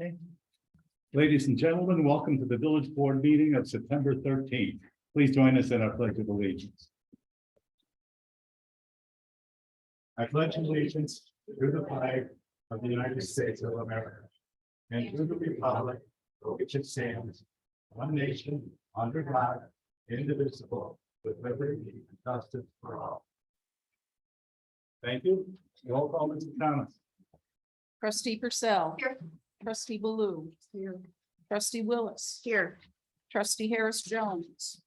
Okay. Ladies and gentlemen, welcome to the village board meeting of September thirteenth. Please join us in our pledge of allegiance. I pledge allegiance to the flag of the United States of America and to the republic for which it stands, one nation, under God, indivisible, with liberty and justice for all. Thank you. Roll call, Mr. Thomas. Trustee Purcell. Here. Trustee Baloo. Here. Trustee Willis. Here. Trustee Harris Jones.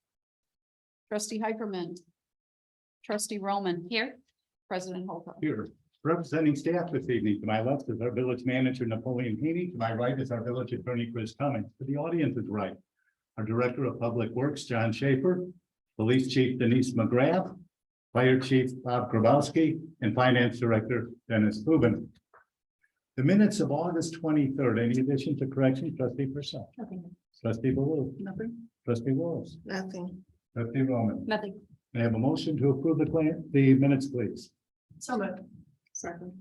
Trustee Hyperman. Trustee Roman. Here. President Holcomb. Here, representing staff this evening, to my left is our village manager Napoleon Haney, to my right is our village attorney Chris Cummings, to the audience is right. Our Director of Public Works, John Schaefer, Police Chief Denise McGrath, Fire Chief Bob Grabowski, and Finance Director Dennis Hooven. The minutes of August twenty-third, any additions or corrections, trustee Purcell? Nothing. Trustee Baloo? Nothing. Trustee Wallace? Nothing. Trustee Roman? Nothing. May I have a motion to approve the claim, the minutes, please? So moved. Second.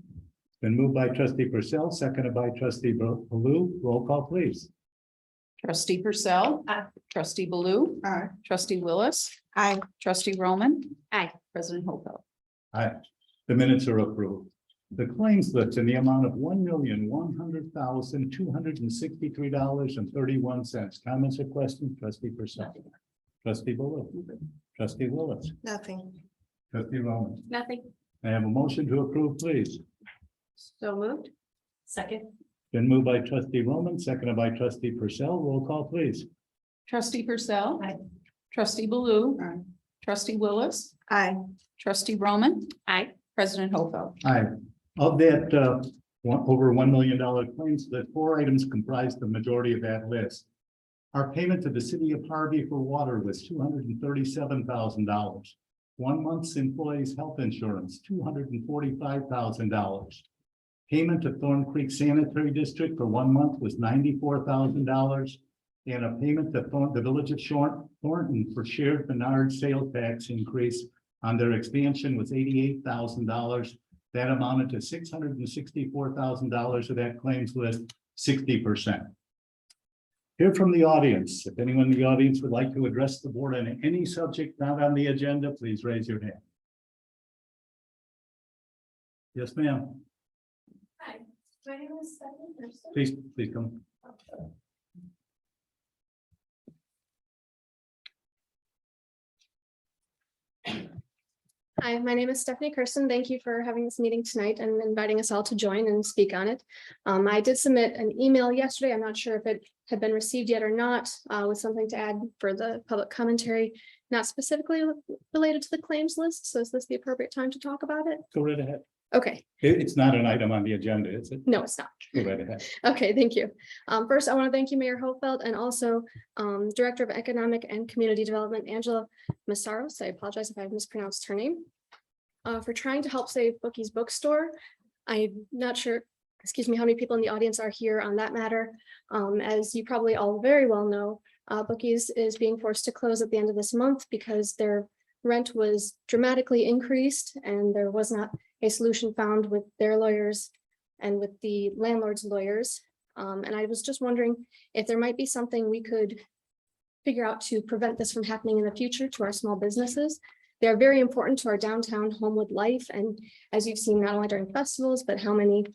Been moved by trustee Purcell, seconded by trustee Bal- Baloo. Roll call, please. Trustee Purcell. Aye. Trustee Baloo. Aye. Trustee Willis. Aye. Trustee Roman. Aye. President Holcomb. Aye. The minutes are approved. The claims slips in the amount of one million, one hundred thousand, two hundred and sixty-three dollars and thirty-one cents. Comments or questions, trustee Purcell? Trustee Baloo? Trustee Willis? Nothing. Trustee Roman? Nothing. May I have a motion to approve, please? So moved. Second. Been moved by trustee Roman, seconded by trustee Purcell. Roll call, please. Trustee Purcell. Aye. Trustee Baloo. Aye. Trustee Willis. Aye. Trustee Roman. Aye. President Holcomb. Aye. Of that, uh, one, over one million dollar claims, that four items comprised the majority of that list. Our payment to the city of Harvey for water was two hundred and thirty-seven thousand dollars. One month's employees' health insurance, two hundred and forty-five thousand dollars. Payment to Thorn Creek Sanitary District for one month was ninety-four thousand dollars. And a payment to Thorn, the village of Shorn, Thornton for shared Menard sales tax increase on their expansion was eighty-eight thousand dollars. That amounted to six hundred and sixty-four thousand dollars of that claims list, sixty percent. Hear from the audience. If anyone in the audience would like to address the board on any subject not on the agenda, please raise your hand. Yes, ma'am. Hi. My name is Stephanie Thurston. Please, please come. Hi, my name is Stephanie Kirsten. Thank you for having this meeting tonight and inviting us all to join and speak on it. Um, I did submit an email yesterday. I'm not sure if it had been received yet or not, uh, with something to add for the public commentary, not specifically related to the claims list. So is this the appropriate time to talk about it? Go right ahead. Okay, It- it's not an item on the agenda, is it? no, it's not. Go right ahead. Okay, thank you. Um, first, I want to thank you, Mayor Hopefeld, and also um, Director of Economic and Community Development, Angela Massaros. I apologize if I mispronounced her name. uh, for trying to help save Bookie's Bookstore. I'm not sure, excuse me, how many people in the audience are here on that matter. Um, as you probably all very well know, uh, Bookie's is being forced to close at the end of this month because their rent was dramatically increased and there was not a solution found with their lawyers and with the landlord's lawyers. Um, and I was just wondering if there might be something we could figure out to prevent this from happening in the future to our small businesses. They're very important to our downtown Homewood life, and as you've seen, not only during festivals, but how many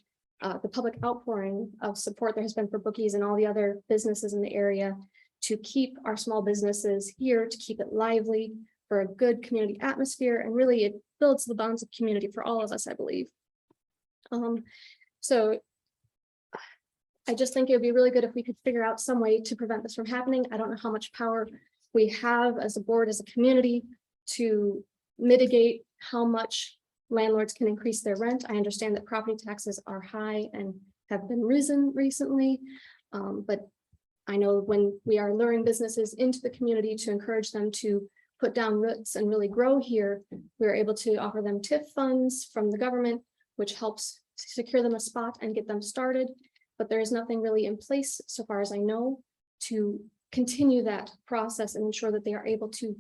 uh, the public outpouring of support there has been for bookies and all the other businesses in the area to keep our small businesses here, to keep it lively for a good community atmosphere, and really it builds the bonds of community for all of us, I believe. Um, so I just think it would be really good if we could figure out some way to prevent this from happening. I don't know how much power we have as a board, as a community to mitigate how much landlords can increase their rent. I understand that property taxes are high and have been risen recently. Um, but I know when we are luring businesses into the community to encourage them to put down roots and really grow here, we're able to offer them TIF funds from the government which helps secure them a spot and get them started. But there is nothing really in place, so far as I know, to continue that process and ensure that they are able to